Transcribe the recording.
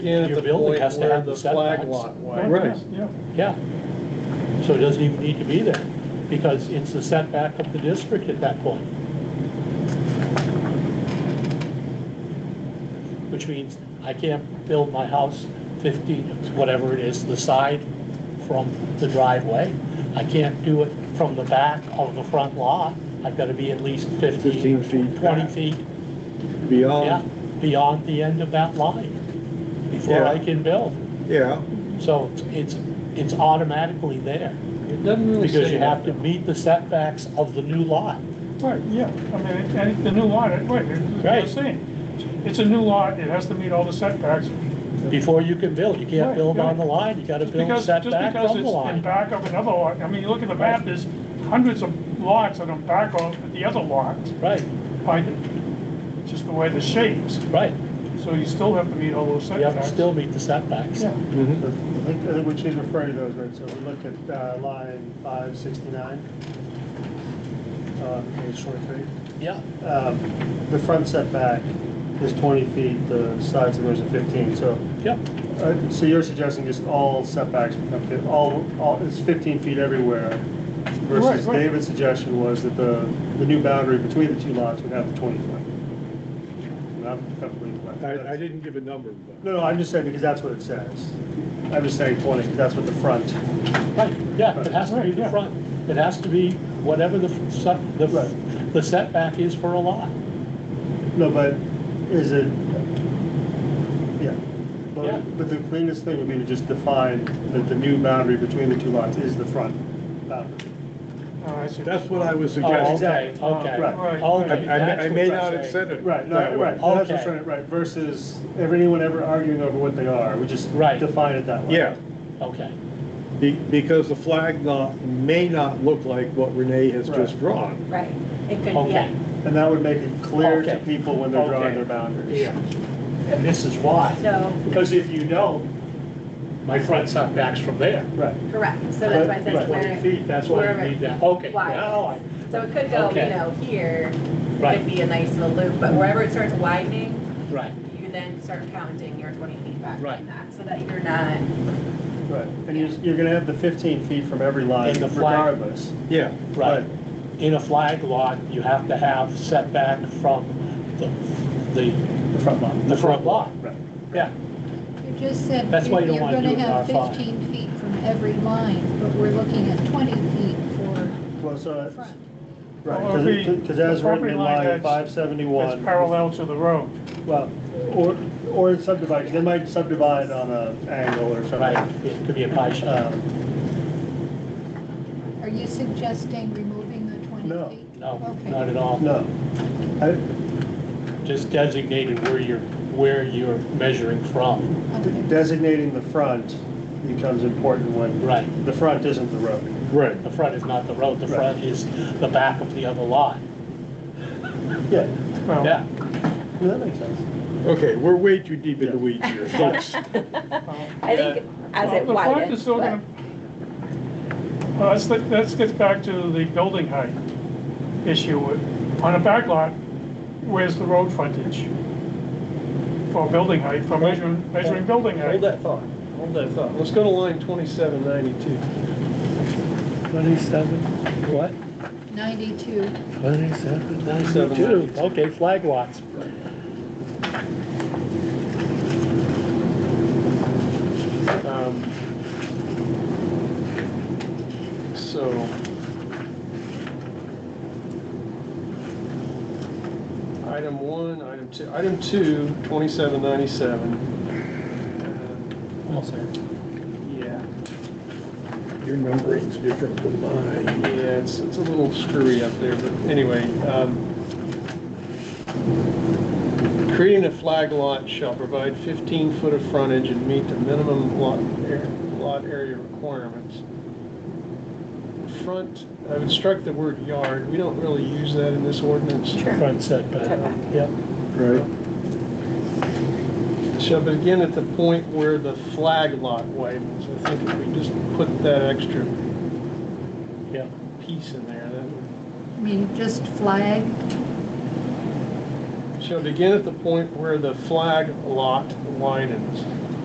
Yeah, Your building has to have the flag setbacks. Right, Yeah, Yeah. So it doesn't even need to be there, because it's the setback of the district at that point. Which means I can't build my house fifty, whatever it is, the side from the driveway. I can't do it from the back of the front lot. I've gotta be at least 15 fifteen, feet twenty back. Um, feet, yeah, beyond, beyond the end of that line before I Yeah. can build. yeah, So it's, it's automatically there, It doesn't really say. because you have to meet the setbacks of the new lot. right, yeah, I mean, it- and it- the new lot, it- right, it's Right. the same. It's a new lot, it has to meet all the setbacks. Before you can build, you can't Right, build on right. the line, you gotta Just build because, just setback because from it's the in line. back of another lot, I mean, you look at the map, there's hundreds of lots that are back of the other lot, Right, by the- just the way the shapes, right, so you still have to meet all those you have to setbacks. still meet the setbacks. Yeah, mhm, I think I think what she's referring to those, right, so we looked at uh, line five sixty-nine, uh, page twenty-three. Yeah, Um, The front setback is twenty feet, the sides of those are fifteen, so, yeah, uh, so you're ssuggesting just all setbacks become, fif- all, all, it's fifteen feet everywhere? Versus Right, right. David's suggestion was that the, the new boundary between the two lots would have the twenty foot. And I'm completely. I, I didn't give a number, but, No, no, I'm just saying because that's what it says. I'm just saying twenty, because that's what the front. right, yeah, it has to be Right, the yeah. front, it has to be whatever the, f- set- the, Right. the setback is for a lot. No, but is it, yeah. Yeah. But, but the cleanest thing would be to just define that the new boundary between the two lots is the front boundary. Oh, I see. that's what I was Oh, suggesting. okay, Oh, okay, right. I, okay. I- I that's may what not have saying. said it Right, no, that right, way. that's Okay. what's right, right, versus everyone ever arguing over what they are, we just Right. define it that way. Yeah, Okay, be, because the flag lot may not look like what Renee has Right. just drawn. Right, it could, okay. yeah. And that would make it clear to Okay. people when they're Okay. drawing their boundaries. And this is why. So, Because if you don't, my front setback's from there. Right, correct, so that's why I Right, said Twenty where, feet, that's why wherever- you need that, okay. wide. now I- so it could go, you Okay. know, here, Right. could be a nice little loop, but wherever it starts widening, Right, you then start counting your twenty feet back Right. from that, so that you're not, right, and you're, you're gonna have the fifteen feet from every line And the flag. regardless. Yeah, right. In a flag lot, you have to have setback from the, the, The front lot. the front lot. Right. Yeah, You just said That's why you're you don't wanna going do to it in have R five. 15 feet from every line, but we're looking at 20 feet for Well, so, the front. Well, it'll be- right, because as the written property in line line that's- five seventy-one. It's parallel to the road. Well, or, or subdivide, 'cause they might subdivide on a angle or right, something. it could be a pie shop. Um, Are you suggesting removing the 20 feet? No, No, Okay. not at all. No. I- Just designated where you're, where you're measuring from. Okay. Designating the front becomes important when. Right. The front isn't the road. right. The front is not the road, the Right. front is the back of the other lot. Yeah, Well, Yeah, that makes sense. Okay, we're way too deep in the Yeah. weeds here, folks. I think, as Well, it the front widens, is still but- gonna- Uh, Well, that's, the- that gets back to the building height issue. On a back lot, where's the road frontage? For building height, for measuring, measuring building Hold height. that thought, hold that thought. Let's go to line twenty-seven ninety-two. twenty-seven, what? 92. Twenty-seven, ninety-two, 92. okay, flag lots. Um, So. Item one, item two, item two, 2797. Yeah. Your numbering's different from mine. Yeah, it's, it's a little screwy up there, but anyway. um, Creating a flag lot shall provide 15 foot of frontage and meet the minimum lot, ar- lot area requirements. Front, I would strike the word yard, we don't really use that in this ordinance. Front setback, Setback. yep. Right. Shall begin at the point where the flag lot widens. I think if we just put that extra Yeah. piece in there, that would I mean, just flag, shall begin at the point where the flag lot widens.